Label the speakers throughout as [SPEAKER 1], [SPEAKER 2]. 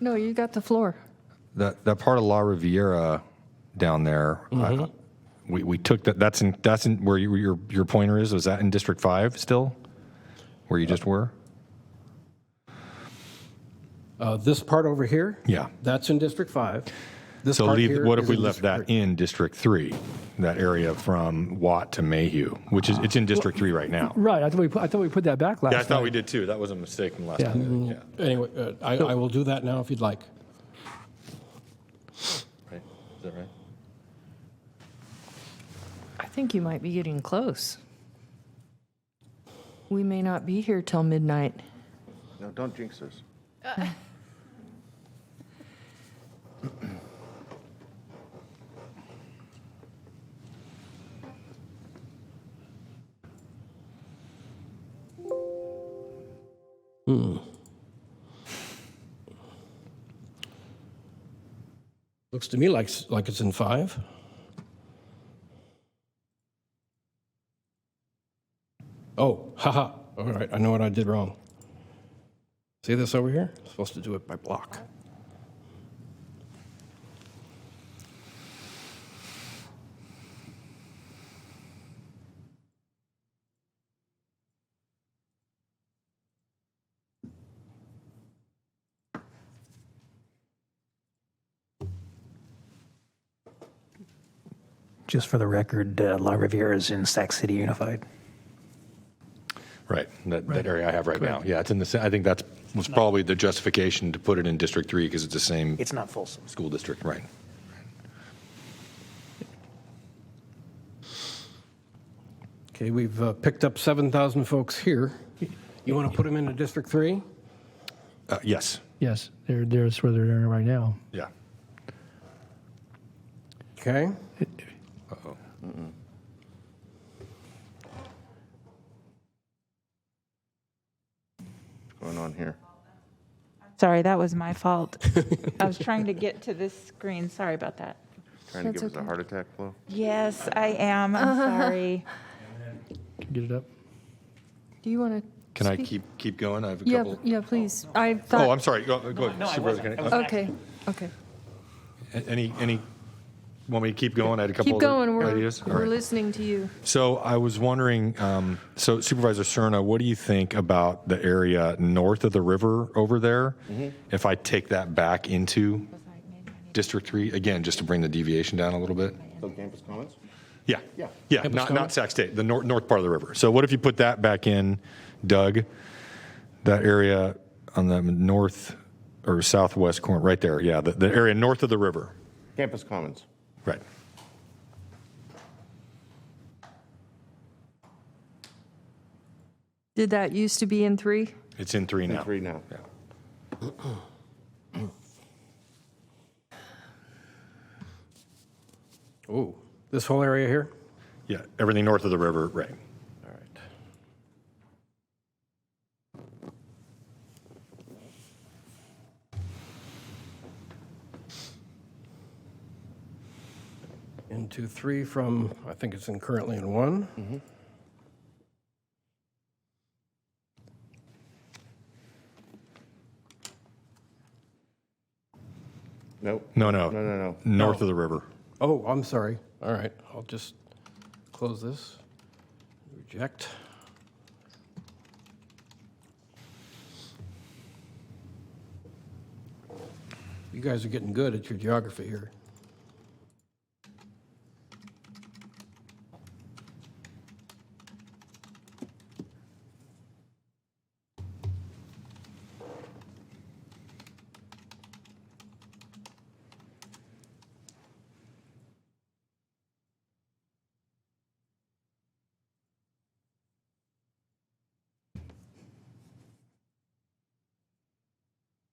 [SPEAKER 1] No, you got the floor.
[SPEAKER 2] That that part of La Riviera down there, I, we we took that. That's in that's in where you, your your pointer is. Was that in District Five still, where you just were?
[SPEAKER 3] Uh, This part over here?
[SPEAKER 2] Yeah.
[SPEAKER 3] That's in District 5. This
[SPEAKER 2] So
[SPEAKER 3] part
[SPEAKER 2] leave.
[SPEAKER 3] here
[SPEAKER 2] What if
[SPEAKER 3] is
[SPEAKER 2] we
[SPEAKER 3] in
[SPEAKER 2] left
[SPEAKER 3] District
[SPEAKER 2] that in District Three, that area from Watt to Mayhew, which is it's in District Three right now.
[SPEAKER 4] Right, I thought we, put- I thought we put that back last
[SPEAKER 2] Ah. Yeah, I
[SPEAKER 4] night.
[SPEAKER 2] thought we did too. That was a mistake from last
[SPEAKER 4] Yeah.
[SPEAKER 2] time. Yeah.
[SPEAKER 3] three. Anyway, uh, I I will do that now if you'd like.
[SPEAKER 2] Right. Is that right?
[SPEAKER 1] I think you might be getting close. We may not be here till midnight.
[SPEAKER 5] No, don't jinx us.
[SPEAKER 3] Looks to me like, s- like it's in 5. Oh, haha, all right, I know what I did wrong. See this over here? Supposed to do it by block.
[SPEAKER 6] Just for the record, uh, La Riviera is in Sac City Unified.
[SPEAKER 2] Right, that, that area I have right now. Yeah, it's in the, sa- I think that's, was probably the justification to put it in District 3 because it's the same
[SPEAKER 6] It's not Folsom.
[SPEAKER 2] school district, right?
[SPEAKER 3] Okay, we've uh, picked up 7,000 folks here. You want to put them into District 3?
[SPEAKER 2] Uh, Yes,
[SPEAKER 4] Yes, they're, there's where they're in right now.
[SPEAKER 2] yeah.
[SPEAKER 3] Okay.
[SPEAKER 5] What's going on here?
[SPEAKER 7] Sorry, that was my fault. I was trying to get to this screen. Sorry about that.
[SPEAKER 5] Trying to
[SPEAKER 1] That's
[SPEAKER 5] give us a heart attack flow?
[SPEAKER 7] Yes, I am. I'm sorry.
[SPEAKER 4] Can you Get it up.
[SPEAKER 1] Do you want to?
[SPEAKER 2] Can I keep, keep going? I have a
[SPEAKER 1] Yeah,
[SPEAKER 2] couple.
[SPEAKER 1] yeah, please. I
[SPEAKER 2] Oh,
[SPEAKER 1] thought,
[SPEAKER 2] I'm sorry, go go ahead. Supervisor Kennedy. Uh,
[SPEAKER 1] okay, okay.
[SPEAKER 2] Any, any, want me to keep going? I had a couple
[SPEAKER 1] Keep
[SPEAKER 2] other
[SPEAKER 1] going. We're,
[SPEAKER 2] ideas. All
[SPEAKER 1] we're
[SPEAKER 2] right.
[SPEAKER 1] listening to you.
[SPEAKER 2] So I was wondering, um, so Supervisor Cerna, what do you think about the area north of the river over there? If I take that back into District 3, again, just to bring the deviation down a little bit?
[SPEAKER 5] So campus comments?
[SPEAKER 2] Yeah.
[SPEAKER 5] Yeah.
[SPEAKER 2] Yeah, not, not Sac State, the north, north part of the river. So what if you put that back in, Doug? That area on the north or southwest corner, right there, yeah, the, the area north of the river.
[SPEAKER 5] Campus comments.
[SPEAKER 2] Right.
[SPEAKER 1] Did that used to be in three?
[SPEAKER 2] It's in three now.
[SPEAKER 5] Three now.
[SPEAKER 2] Yeah.
[SPEAKER 3] Oh, this whole area here?
[SPEAKER 2] Yeah, everything north of the river, right.
[SPEAKER 3] All right. Into three from, I think it's in currently in one.
[SPEAKER 5] Mm-hmm. Nope.
[SPEAKER 2] No, no.
[SPEAKER 5] No, no, no.
[SPEAKER 2] North of the river.
[SPEAKER 3] Oh, I'm sorry. All right, I'll just close this. Reject. You guys are getting good at your geography here.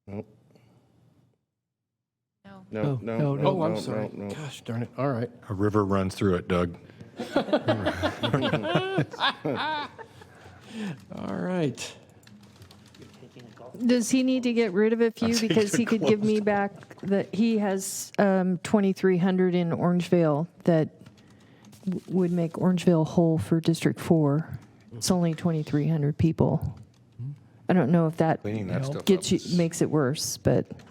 [SPEAKER 5] Nope.
[SPEAKER 7] No.
[SPEAKER 5] No, no, no, no.
[SPEAKER 3] Oh, I'm sorry.
[SPEAKER 5] no, no.
[SPEAKER 3] Gosh darn it. All right.
[SPEAKER 2] A river runs through it, Doug.
[SPEAKER 3] All right.
[SPEAKER 1] Does he need to get rid of a few because he could give me back the, he has um, 2,300 in Orangevale that w- would make Orangevale whole for District 4. It's only 2,300 people. I don't know if that
[SPEAKER 2] Cleaning that stuff up
[SPEAKER 1] gets you,
[SPEAKER 2] is-
[SPEAKER 1] makes it worse, but.